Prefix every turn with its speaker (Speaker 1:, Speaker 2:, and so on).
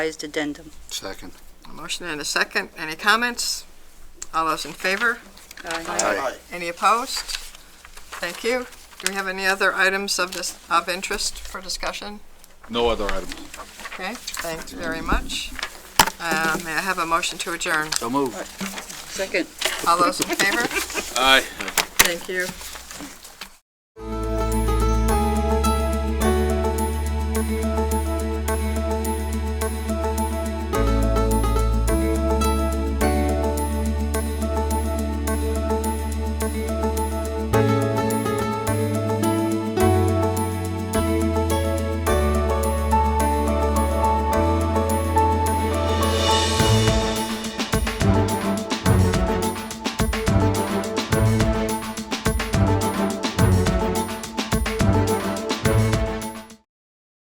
Speaker 1: revised addendum.
Speaker 2: Second.
Speaker 3: A motion and a second. Any comments? All those in favor?
Speaker 2: Aye.
Speaker 3: Any opposed? Thank you. Do we have any other items of this, of interest for discussion?
Speaker 4: No other items.
Speaker 3: Okay, thanks very much. Uh, May I have a motion to adjourn?
Speaker 2: So moved.
Speaker 1: Second.
Speaker 3: All those in favor?
Speaker 4: Aye.
Speaker 3: Thank you.